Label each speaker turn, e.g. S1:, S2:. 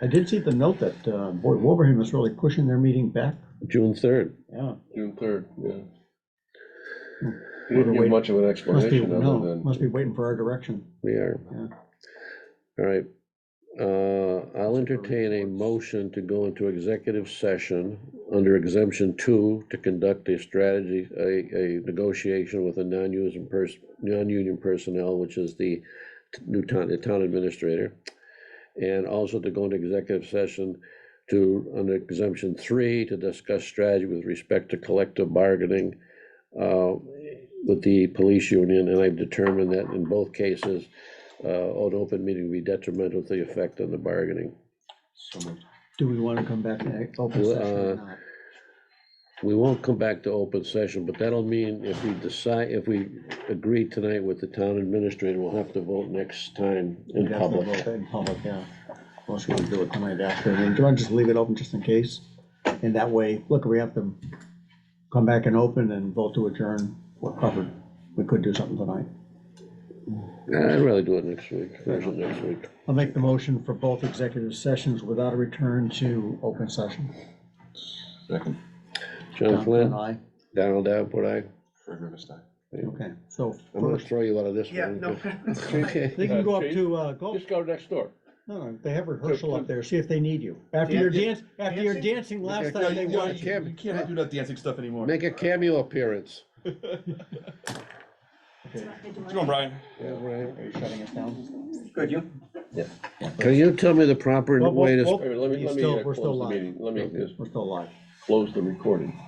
S1: I did see the note that, uh, boy, Wolverham is really pushing their meeting back.
S2: June third.
S1: Yeah.
S3: June third, yeah.
S1: Hmm.
S3: You didn't give
S1: Wait.
S3: much of an
S1: Must be,
S3: explanation other
S1: no,
S3: than,
S1: must be waiting for our direction.
S2: We are.
S1: Yeah.
S2: All right. Uh, I'll entertain a motion to go into executive session under exemption two to conduct a strategy, a, a negotiation with a non-using person, non-union personnel, which is the new town, the town administrator. And also to go into executive session to, under exemption three, to discuss strategy with respect to collective bargaining uh, with the police union, and I've determined that in both cases, uh, an open meeting would be detrimental to the effect on the bargaining.
S1: Do we want to come back in open
S2: Well,
S1: session or
S2: uh,
S1: not?
S2: We won't come back to open session, but that'll mean if we decide, if we agree tonight with the town administrator, we'll have to vote next time in
S1: We'd have to vote
S2: public.
S1: that In public, yeah. Unless we want to do it tonight after. I mean, do you want to just leave it open just in case? And that way, look, we have to come back and open and vote to adjourn. We're covered. We could do something tonight.
S2: I'd rather do it next week, version next week.
S1: I'll make the motion for both executive sessions without a return to open session.
S3: second,
S2: John Flynn,
S1: Aye.
S2: Donald Davenport, aye.
S3: Fred Rivers time.
S1: Okay, so
S2: I'm gonna
S1: first,
S2: throw you out of this one.
S4: Yeah, no.
S2: Okay.
S1: they can go up
S3: Uh,
S1: to, uh, go,
S3: Just go next door.
S1: no, no, they have rehearsal up there, see if they need you. After your dance, after your dancing last time, they
S2: Yeah,
S1: want you.
S2: Cam-
S4: Can't do that dancing stuff anymore.
S2: Make a cameo appearance.
S4: Come on, Brian.
S2: Yeah, right.
S1: Are you shutting us down?
S4: Good, you?
S2: Can you tell me the proper
S1: Well, well,
S2: way to?
S1: well,
S3: Wait a minute, Let me,
S1: He's
S3: let me
S1: still-
S3: uh,
S1: we're still
S3: close the
S1: live.
S3: meeting, let me just
S1: We're still live.
S3: close the recording.